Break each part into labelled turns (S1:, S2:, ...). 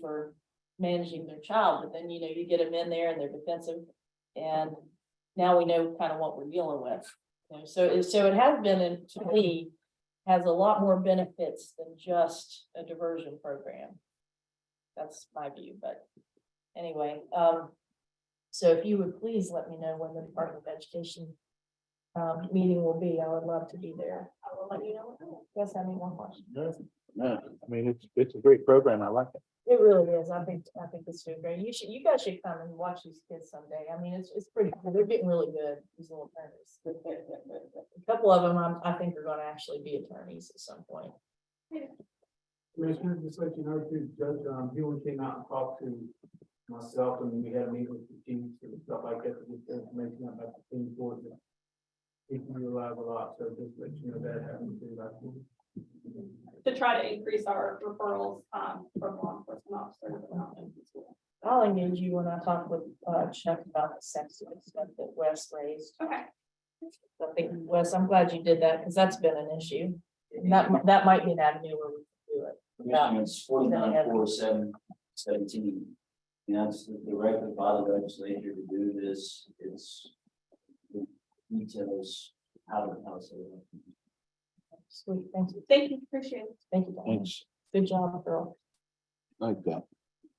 S1: for managing their child, but then, you know, you get them in there and they're defensive. And now we know kind of what we're dealing with. You know, so it, so it has been, and to me, has a lot more benefits than just a diversion program. That's my view, but anyway, um, so if you would please let me know when the Department of Education um, meeting will be, I would love to be there. I will let you know. Yes, I mean, one question.
S2: No, no, I mean, it's, it's a great program. I like it.
S1: It really is. I think, I think it's doing great. You should, you guys should come and watch these kids someday. I mean, it's, it's pretty, cool. they're getting really good, these little attorneys. A couple of them, I, I think are gonna actually be attorneys at some point.
S3: Commissioner, just let you know, too, Judge, um, Hewen came out and talked to myself, and we had a meeting with the teams and stuff like that, to get information about the team board. and He can rely a lot, so just let you know that happened too, like.
S4: to try to increase our referrals um from law enforcement officers. and not just the school.
S1: I'll engage you when I talk with uh, Chuck about the sex ed stuff that Wes raised.
S4: Okay,
S1: I think, Wes, I'm glad you did that, because that's been an issue. And that, mi- that might be an avenue where we can do it.
S5: Commissioner, it's forty-nine, four, seven, seventeen. And that's the directive by the legislature to do this, it's. it Details, how to, how to say that.
S1: Sweet, thank you,
S4: thank you, appreciate it.
S1: thank you. Diane.
S2: Thanks.
S1: Good job, girl.
S2: Like that.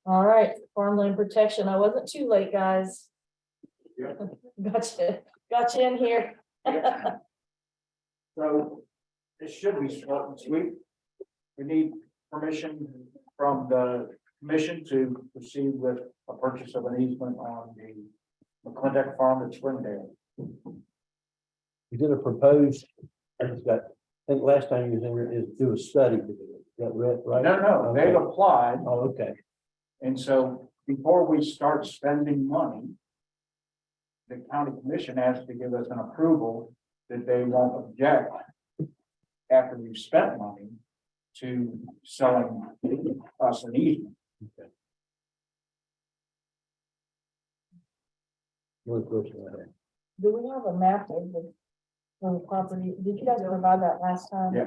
S1: All right, farmland protection. I wasn't too late, guys.
S3: Yeah.
S1: Gotcha, gotcha in here.
S6: So this should be short and sweet. We need permission from the commission to proceed with a purchase of an easement on the McClintock Farm at Springdale.
S2: We did a proposed, I just got, I think last time you was in, here, is do a study. Is That right,
S6: No,
S2: right?
S6: no, they've applied,
S2: Oh, okay.
S6: and so before we start spending money, the county commission has to give us an approval that they won't object after we've spent money to selling us an easement.
S2: One question I had.
S1: Do we have a map of the, of the property? Did you guys provide that last time?
S6: Yeah.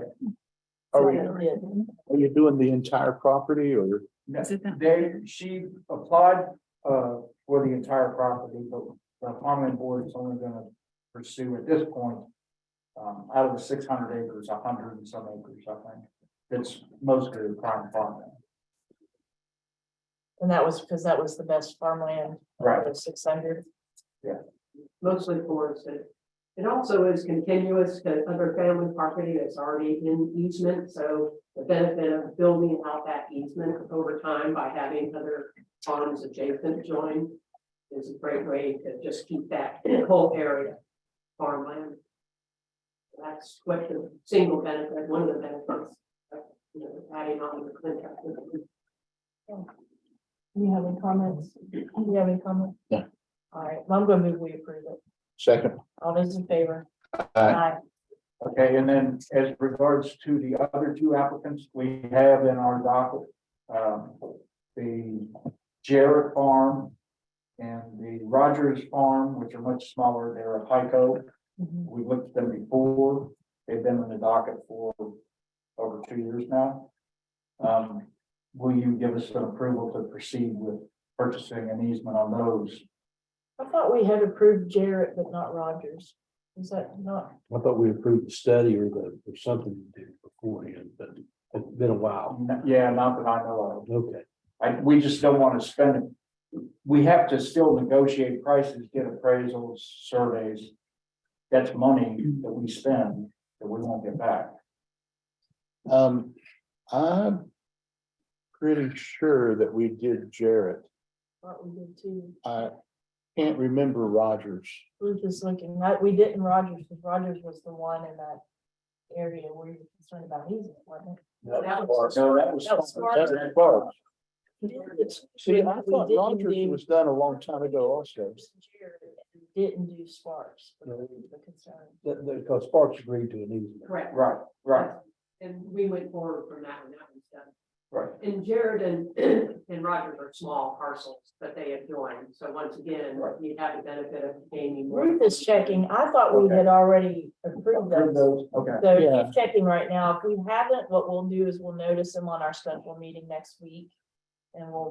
S6: Oh,
S2: Are we-
S1: So I did.
S2: Are you doing the entire property or?
S6: They, she applied, uh, for the entire property, but the common board is only gonna pursue at this point. Um, out of the six hundred acres, a hundred and some acres, I think, that's mostly prime farmland.
S1: And that was because that was the best farmland. uh,
S6: Right.
S1: Six hundred.
S7: mostly for us. It- It also is continuous to other family property that's already in easement, so the benefit of building out that easement over time by having other farms adjacent join is a great way to just keep that whole area farmland. That's what the single benefit, one of the benefits, of, you know, adding on to the Clinton.
S1: Do you have any comments? Do you have any comments?
S2: No.
S1: All right, well, I'm gonna move, we approve it.
S2: Second.
S1: All those in favor?
S6: Okay, and then as regards to the other two applicants, we have in our docket, um, the Jarrett Farm and the Rogers Farm, which are much smaller, they're a Pico.
S1: Mhm.
S6: We looked at them before, they've been on the docket for over two years now. Um, will you give us an approval to proceed with purchasing an easement on those?
S1: I thought we had approved Jarrett, but not Rogers. Is that not?
S2: I thought we approved the study or the, or something to do beforehand, but it's been a while.
S6: Yeah, not that I know
S2: Okay.
S6: of, I, we just don't wanna spend it. We have to still negotiate prices, get appraisals, surveys. That's money that we spend that we won't get back.
S2: Um, I'm pretty sure that we did Jarrett.
S1: What we did too.
S2: I can't remember Rogers.
S1: Ruth is looking, right, we didn't Rogers, because Rogers was the one in that area where you were concerned about easement, wasn't That was-
S6: So that was.
S1: That was smart.
S2: That's Park.
S1: it?
S2: See, I
S1: We
S2: thought
S1: didn't
S2: Rogers
S1: do-
S2: was done a long time ago also.
S1: Didn't do Sparks,
S2: No.
S1: the concern.
S2: That, that, because Sparks agreed to an easement.
S7: Correct,
S6: Right, right,
S7: and we went forward from that one, that was done.
S6: right.
S7: And Jared and, and Rogers are small parcels, but they have joined, so once again,
S6: Right.
S7: you have the benefit of gaining. more.
S1: Ruth is checking, I thought we
S6: Okay.
S1: had already approved those,
S6: Approve those, okay.
S1: so
S2: Yeah.
S1: she's checking right now, if we haven't, what we'll do is we'll notice them on our special meeting next week. and we'll